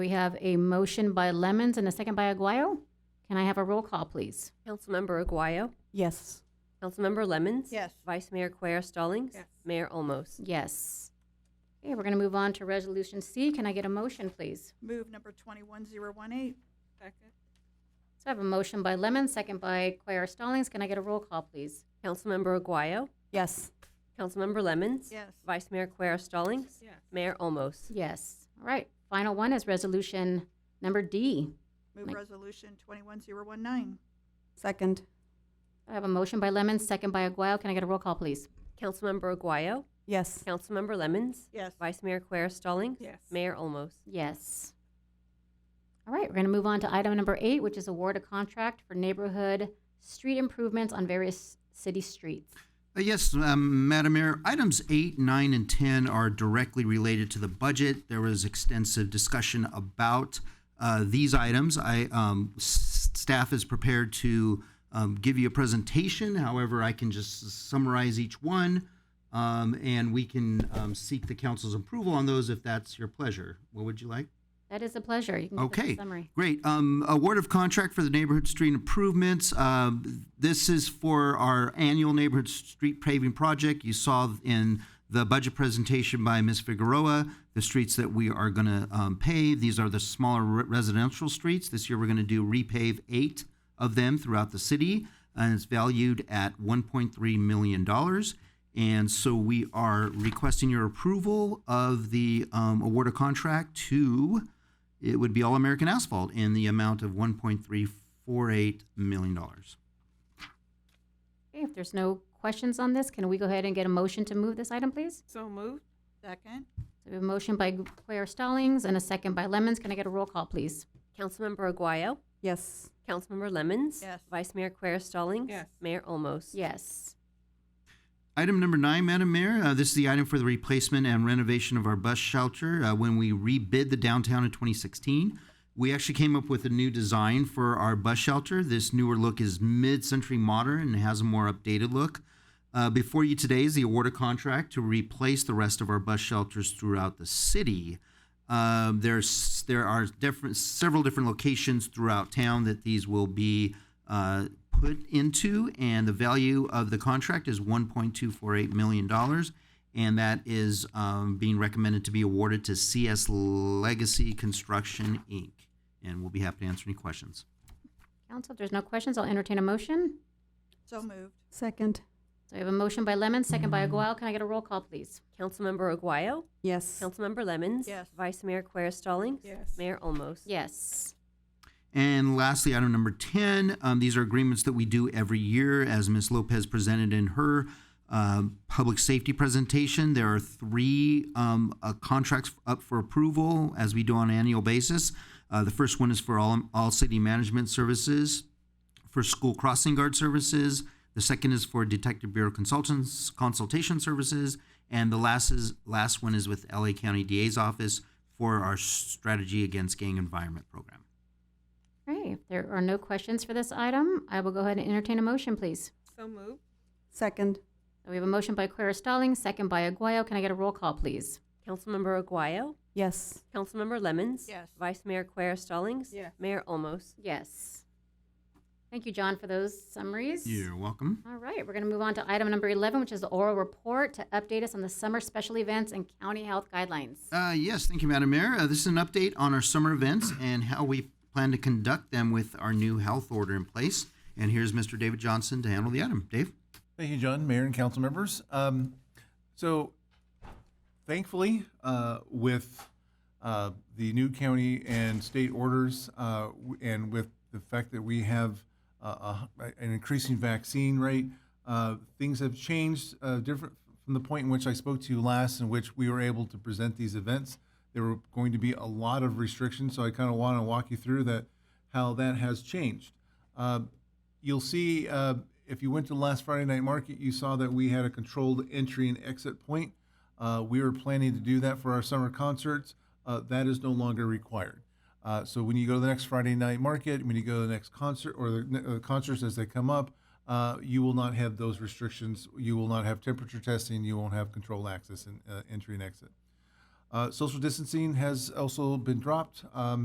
We have a motion by Lemmons and a second by Aguayo. Can I have a roll call, please? Councilmember Aguayo. Yes. Councilmember Lemmons. Yes. Vice Mayor Quer Stallings. Yes. Mayor Olmos. Yes. Okay, we're going to move on to Resolution C. Can I get a motion, please? Move number 21018. Second. So I have a motion by Lemmons, second by Quayre Stallings. Can I get a roll call, please? Councilmember Aguayo. Yes. Councilmember Lemmons. Yes. Vice Mayor Quer Stallings. Yes. Mayor Olmos. Yes. All right. Final one is Resolution Number D. Move Mike. resolution 21019. Second. I have a motion by Lemmons, second by Aguayo. Can I get a roll call, please? Councilmember Aguayo. Yes. Councilmember Lemmons. Yes. Vice Mayor Quer Stallings. Yes. Mayor Olmos. Yes. All right, we're going to move on to item number eight, which is award a contract for neighborhood street improvements on various city streets. Uh, Yes, um, Madam Mayor, items eight, nine, and 10 are directly related to the budget. There was extensive discussion about uh, these items. I, um, s- staff is prepared to um, give you a presentation. However, I can just summarize each one, um, and we can um, seek the council's approval on those if that's your pleasure. What would you like? That is a pleasure. You can give us a Okay, summary. great. Um, award of contract for the neighborhood street improvements. Um, this is for our annual neighborhood street paving project. You saw in the budget presentation by Ms. Figueroa, the streets that we are going to um, pave. These are the smaller re- residential streets. This year, we're going to do repave eight of them throughout the city, and it's valued at $1.3 million. And so we are requesting your approval of the um, award of contract to it would be All American Asphalt in the amount of $1.348 million. Okay, if there's no questions on this, can we go ahead and get a motion to move this item, please? So moved. Second. So we have a motion by Quayre Stallings and a second by Lemmons. Can I get a roll call, please? Councilmember Aguayo. Yes. Councilmember Lemmons. Yes. Vice Mayor Quer Stallings. Yes. Mayor Olmos. Yes. Item number nine, Madam Mayor, uh, this is the item for the replacement and renovation of our bus shelter. Uh, when we rebid the downtown in 2016, we actually came up with a new design for our bus shelter. This newer look is mid century modern and has a more updated look. Uh, before you today is the award of contract to replace the rest of our bus shelters throughout the city. Um, there's there are different several different locations throughout town that these will be uh, put into, and the value of the contract is 1.248 million dollars, and that is um, being recommended to be awarded to CS Legacy Construction Inc. And we'll be happy to answer any questions. Council, if there's no questions, I'll entertain a motion. So moved. Second. So we have a motion by Lemmons, second by Aguayo. Can I get a roll call, please? Councilmember Aguayo. Yes. Councilmember Lemmons. Yes. Vice Mayor Quer Stallings. Yes. Mayor Olmos. Yes. And lastly, item number 10, um, these are agreements that we do every year. As Ms. Lopez presented in her um, public safety presentation, there are three um, uh, contracts up for approval as we do on an annual basis. Uh, the first one is for all, all city management services for school crossing guard services. The second is for Detective Bureau consultants consultation services, and the last is last one is with LA County DA's office for our strategy against gang environment program. Okay, if there are no questions for this item, I will go ahead and entertain a motion, please. So moved. Second. So We have a motion by Quayre Stallings, second by Aguayo. Can I get a roll call, please? Councilmember Aguayo. Yes. Councilmember Lemmons. Yes. Vice Mayor Quer Stallings. Yes. Mayor Olmos. Yes. Thank you, John, for those summaries. You're welcome. All right, we're going to move on to item number 11, which is the oral report to update us on the summer special events and county health guidelines. Uh, yes, thank you, Madam Mayor. Uh, this is an update on our summer events and how we plan to conduct them with our new health order in place. And here's Mr. David Johnson to handle the item. Dave? Thank you, John, Mayor, and council members. Um, so, thankfully, uh, with uh, the new county and state orders, uh, w- and with the fact that we have uh, a, an increasing vaccine rate, uh, things have changed uh, different from the point in which I spoke to you last, in which we were able to present these events. There were going to be a lot of restrictions, so I kind of want to walk you through that how that has changed. Uh, you'll see uh, if you went to the last Friday night market, you saw that we had a controlled entry and exit point. Uh, we were planning to do that for our summer concerts. Uh, that is no longer required. Uh, so when you go to the next Friday night market, when you go to the next concert or the ne- uh, concerts as they come up, uh, you will not have those restrictions. You will not have temperature testing. You won't have controlled access and uh, entry and exit. Uh, Social distancing has also been dropped. Um,